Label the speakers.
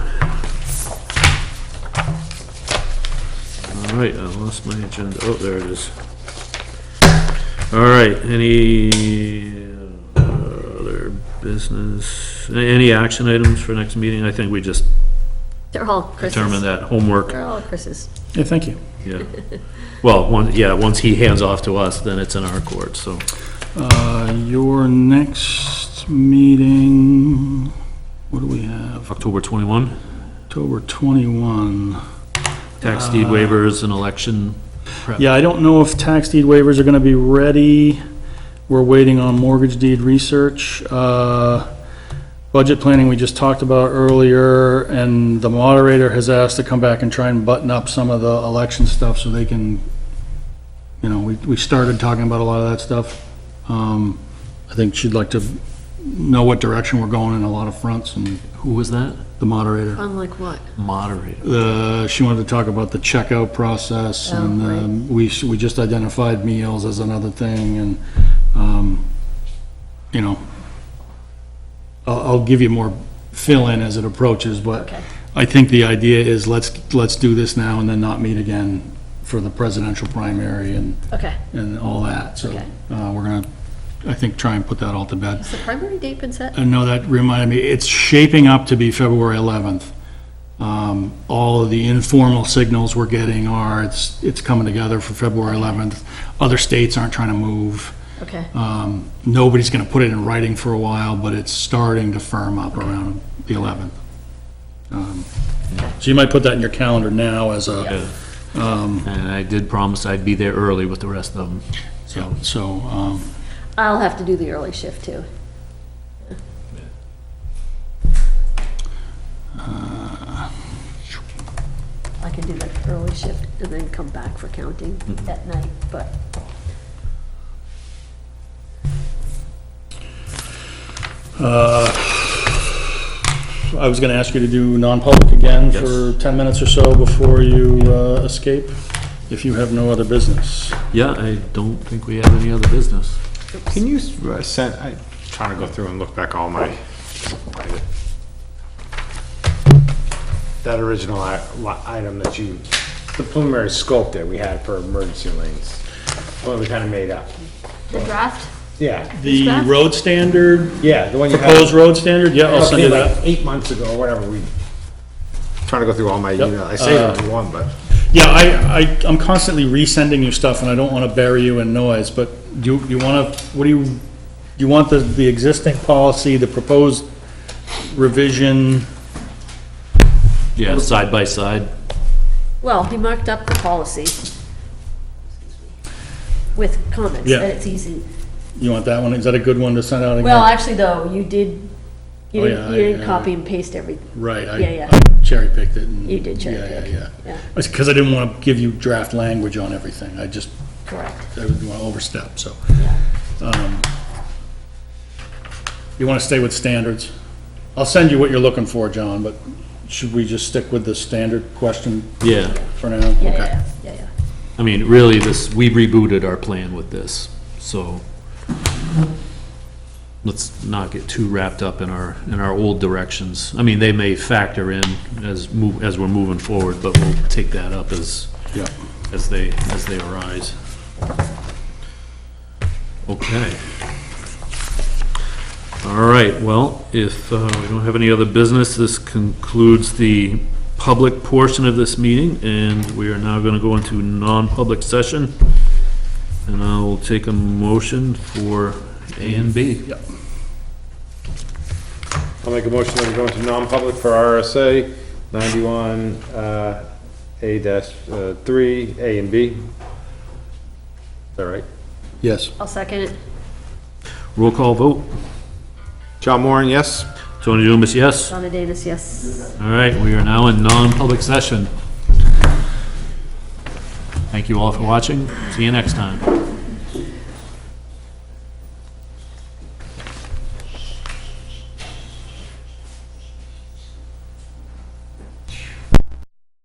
Speaker 1: All right, I lost my agenda. Oh, there it is. All right, any uh, other business, a- any action items for next meeting? I think we just
Speaker 2: They're all Chris's.
Speaker 1: determined that homework,
Speaker 2: They're all Chris's.
Speaker 3: Yeah, thank you.
Speaker 1: yeah. Well, one, yeah, once he hands off to us, then it's in our court, so.
Speaker 3: Uh, Your next meeting, what do we have?
Speaker 1: October 21,
Speaker 3: October 21.
Speaker 1: tax deed waivers and election.
Speaker 3: Yeah, I don't know if tax deed waivers are going to be ready. We're waiting on mortgage deed research. Uh, Budget planning, we just talked about earlier, and the moderator has asked to come back and try and button up some of the election stuff so they can, you know, we, we started talking about a lot of that stuff. Um, I think she'd like to know what direction we're going in a lot of fronts, and
Speaker 1: Who was that?
Speaker 3: the moderator.
Speaker 2: On like what?
Speaker 1: Moderator.
Speaker 3: The, she wanted to talk about the checkout process,
Speaker 2: Oh,
Speaker 3: and
Speaker 2: right.
Speaker 3: um, we, s- we just identified meals as another thing, and, um, you know, I'll, I'll give you more fill-in as it approaches, but
Speaker 2: Okay.
Speaker 3: I think the idea is let's, let's do this now and then not meet again for the presidential primary and,
Speaker 2: Okay.
Speaker 3: and all that, so,
Speaker 2: Okay.
Speaker 3: uh, we're gonna, I think, try and put that all to bed.
Speaker 2: Has the primary date been set?
Speaker 3: Uh, No, that reminded me, it's shaping up to be February 11th. Um, All of the informal signals we're getting are, it's, it's coming together for February 11th. Other states aren't trying to move.
Speaker 2: Okay.
Speaker 3: Um, Nobody's going to put it in writing for a while, but it's starting to firm up around the 11th. Um, So you might put that in your calendar now as a,
Speaker 1: Yeah. And I did promise I'd be there early with the rest of them, so.
Speaker 3: so, um,
Speaker 2: I'll have to do the early shift too. I can do the early shift and then come back for counting
Speaker 3: Mm-hmm.
Speaker 2: at night, but
Speaker 3: I was going to ask you to do non-public again
Speaker 1: Yes.
Speaker 3: for 10 minutes or so before you uh, escape, if you have no other business.
Speaker 1: Yeah, I don't think we have any other business.
Speaker 4: Can you s- uh, send, I'm trying to go through and look back all my, that original i- li- item that you, the preliminary scope that we had for emergency lanes, what we kind of made up.
Speaker 2: the draft,
Speaker 4: Yeah,
Speaker 3: The
Speaker 2: Scott?
Speaker 3: road standard,
Speaker 4: yeah, the one you had.
Speaker 3: proposed road standard, yeah, I'll send you
Speaker 4: Like
Speaker 3: that.
Speaker 4: Eight months ago, or whatever, we, trying to go through all my
Speaker 3: Yep, Uh,
Speaker 4: email, I saved it in one, but.
Speaker 3: Yeah, I, I, I'm constantly resending you stuff, and I don't want to bury you in noise, but do you, you want to, what do you, you want the, the existing policy, the proposed revision?
Speaker 1: Yeah, side by side.
Speaker 2: well, he marked up the policy with comments,
Speaker 3: Yeah.
Speaker 2: and it's easy.
Speaker 3: You want that one? Is that a good one to send out again?
Speaker 2: Well, actually though, you did, you
Speaker 3: Oh,
Speaker 2: didn't,
Speaker 3: yeah,
Speaker 2: you didn't
Speaker 3: I-
Speaker 2: copy and paste every,
Speaker 3: Right,
Speaker 2: yeah,
Speaker 3: I
Speaker 2: yeah.
Speaker 3: I cherry-picked it. and-
Speaker 2: You did cherry pick.
Speaker 3: Yeah, yeah,
Speaker 2: yeah,
Speaker 3: yeah. Because I didn't want to give you draft language on everything. I just,
Speaker 2: correct.
Speaker 3: I didn't want to overstep, so.
Speaker 2: Yeah.
Speaker 3: Um, You want to stay with standards? I'll send you what you're looking for, John, but should we just stick with the standard question
Speaker 1: Yeah,
Speaker 3: for now?
Speaker 2: Yeah,
Speaker 3: Okay.
Speaker 2: yeah, yeah, yeah.
Speaker 1: I mean, really, this, we rebooted our plan with this, so let's not get too wrapped up in our, in our old directions. I mean, they may factor in as move, as we're moving forward, but we'll take that up as,
Speaker 3: Yeah.
Speaker 1: as they, as they arise. Okay. All right, well, if uh, we don't have any other business, this concludes the public portion of this meeting, and we are now going to go into non-public session. And I will take a motion for A and B.
Speaker 3: Yep.
Speaker 4: I'll make a motion that we go into non-public for RSA ninety-one, uh, A dash, uh, three, A and B. Is that right?
Speaker 3: Yes.
Speaker 2: I'll second it.
Speaker 1: Roll call vote.
Speaker 4: John Moran, yes?
Speaker 1: Tony Dumas, yes.
Speaker 2: Donna Davis, yes.
Speaker 1: All right, we are now in non-public session. Thank you all for watching. See you next time.